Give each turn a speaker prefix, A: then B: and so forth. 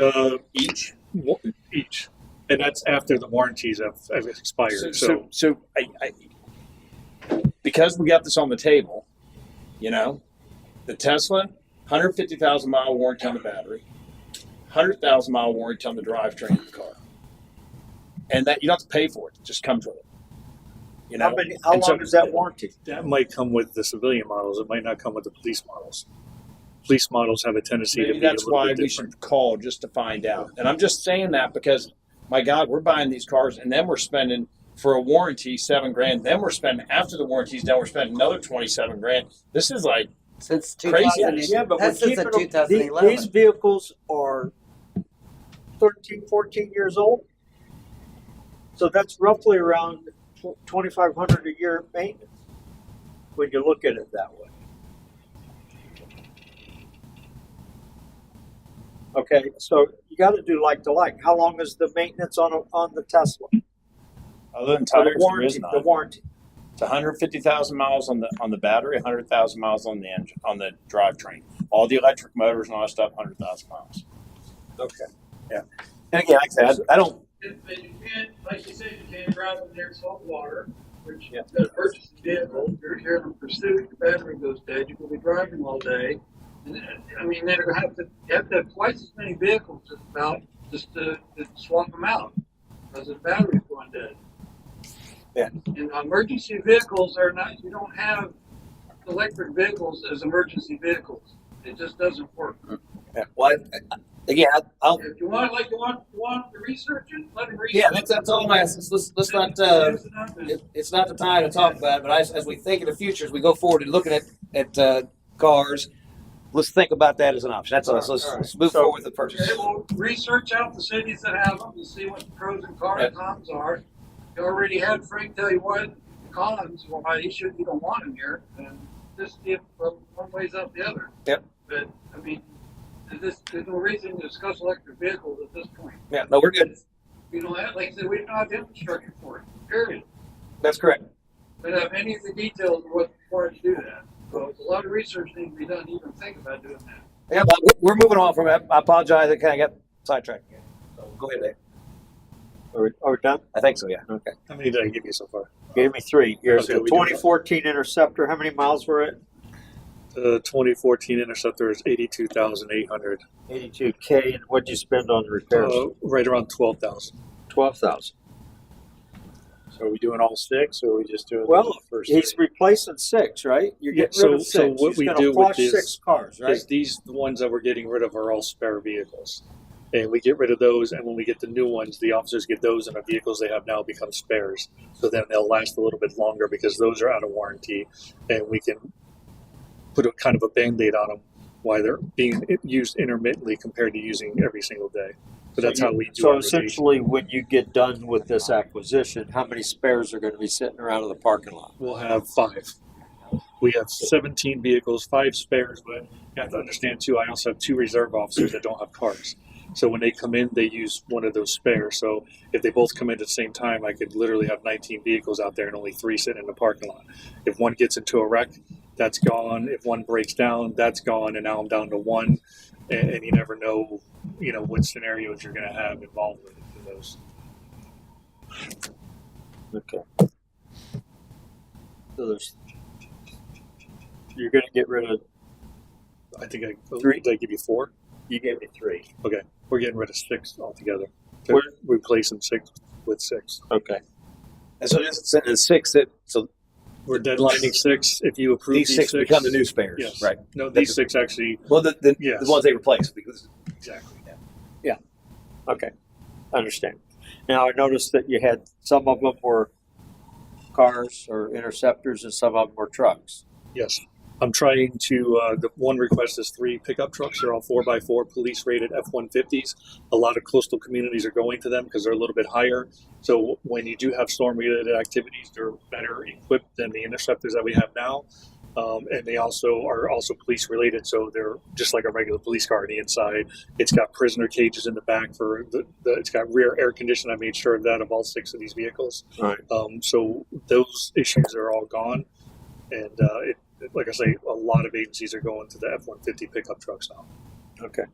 A: uh,
B: each?
A: wa- each, and that's after the warranties have, have
B: So,
A: expired.
B: so,
A: So,
B: so I, I, because we got this on the table, you know, the Tesla, 150,000 mile warranty on the battery, 100,000 mile warranty on the drivetrain of the car. And that you don't have to pay for it, it just comes with it. You know,
C: How many, how
B: And so-
C: long is that warranty?
A: that might come with the civilian models. It might not come with the police models. Police models have a tendency to
B: Maybe
A: be
B: that's
A: a little
B: why
A: bit
B: we
A: different.
B: should call just to find out. And I'm just saying that because, my God, we're buying these cars and then we're spending for a warranty seven grand. Then we're spending after the warranty's done, we're spending another twenty seven grand. This is like
D: Since
B: Crazy.
D: 2000,
B: Yes.
C: Yeah, but we're
D: That's since
C: keeping
D: the
C: them. the-
D: 2011.
C: These vehicles are 13, 14 years old. So that's roughly around tw- 2,500 a year maintenance, when you look at it that way. Okay, so you gotta do like to like. How long is the maintenance on, a on the Tesla?
B: other than
C: Or the
B: tires, there
C: warranty,
B: is
C: the
B: none.
C: warranty.
B: It's one hundred fifty thousand miles on the on the battery, one hundred thousand miles on the engine on the drivetrain. All the electric motors and all that stuff, hundred thousand miles.
C: Okay.
B: And again, like I said, I I don't
E: And and you can't, like you said, you can't drive in there saltwater, which
C: Yeah.
E: you've got to purchase a vehicle, you're here in pursuit, your battery goes dead, you could be driving all day. And, uh, I mean, they're gonna have to, you have to have twice as many vehicles just about, just to, to swap them out, because the battery's going dead.
B: Yeah.
E: And emergency vehicles are not, you don't have electric vehicles as emergency vehicles, it just doesn't work.
D: Oh.
B: well, I- I- again, I, I don't
E: If you want, like, you want, you want to research it, let them research.
D: Yeah, that's, that's all I'm asking. Let's, let's not, uh,
E: It's enough.
D: it, it's not the time to talk about it, but as, as we think in the future, as we go forward and looking at, at, uh, cars, let's think about that as an option. That's all. So Let's, let's move forward with the purchase.
E: Okay, well, research out the cities that have them and see what the pros and
D: Yeah.
E: cons cons are. You already had Frank tell you what the cons, why you should, you don't want them here, and just see if uh, one weighs out the other.
D: Yep.
E: But, I mean, there's, just- there's no reason to discuss electric vehicles at this point.
D: Yeah, no, we're good.
E: We don't have, like I said, we don't have the infrastructure for it, period.
D: That's correct.
E: We don't have any of the details of what's required to do that. So a lot of research needs to be done, to even think about doing that.
D: Yeah, but we- we're moving on from that. I apologize. I kind of got sidetracked again. So Go ahead, Dave.
C: Are we, are we done?
D: I think so, yeah.
C: Okay.
A: How many did I give you so far?
C: Gave me three. Here's
A: Okay,
C: the
A: we do that.
C: 2014 Interceptor. How many miles were it?
A: The 2014 Uh, Interceptor is 82,800,
C: 82K. And what'd you spend on the repairs?
A: uh, right around 12,000.
C: 12,000.
F: So are we doing all six, or are we just doing
C: Well,
F: the first?
C: He's
F: three?
C: replacing six, right? You're
A: Yeah,
C: getting rid of
A: so- so
C: six.
A: what
C: He's
A: we
C: gonna
A: do with
C: flush
A: this
C: six cars, right?
A: Because these the ones that we're getting rid of are all spare vehicles, and we get rid of those, and when we get the new ones, the officers get those, and the vehicles they have now become spares. So then they'll last a little bit longer because those are out of warranty, and we can put a kind of a band-aid on them while they're being used intermittently compared to using every single day. So that's
C: you-
A: how we do.
C: So
A: our rotation.
C: essentially, when you get done with this acquisition, how many spares are going to be sitting around in the parking lot?
A: we'll have five. We have 17 vehicles, five spares, but you have to understand too, I also have two reserve officers that don't have cars. So when they come in, they use one of those spares. So if they both come in at the same time, I could literally have 19 vehicles out there and only three sitting in the parking lot. If one gets into a wreck, that's gone. If one breaks down, that's gone. And now I'm down to one. And, and you never know, you know, what scenarios you're going to have involved with those.
C: Okay. So there's, you're going to get rid of,
A: I think I,
C: Three.
A: did I give you four?
C: you gave me three.
A: We're getting rid of six altogether.
C: We're-
A: We're replacing six with six.
C: Okay.
D: And so just send in six that, so
A: We're deadlining six. If you approve
D: these
A: these
D: six become the new spares.
A: Yes.
D: Right.
A: No, these six actually.
D: Well, the, the,
A: Yes.
D: the ones they replace because
A: Exactly.
C: Okay, understand. Now, I noticed that you had, some of them were cars or interceptors and some of them were trucks.
A: Yes. I'm trying to, uh, the one request is three pickup trucks. They're all four by four police rated F 150s. A lot of coastal communities are going to them because they're a little bit higher. So when you do have storm related activities, they're better equipped than the interceptors that we have now. Um, and they also are also police related. So they're just like a regular police car on the inside. It's got prisoner cages in the back for the, the it's got rear air conditioning. I made sure of that of all six of these vehicles.
C: Right.
A: Um, so those issues are all gone. And uh, it, like I say, a lot of agencies are going to the F one fifty pickup trucks now.
C: Okay.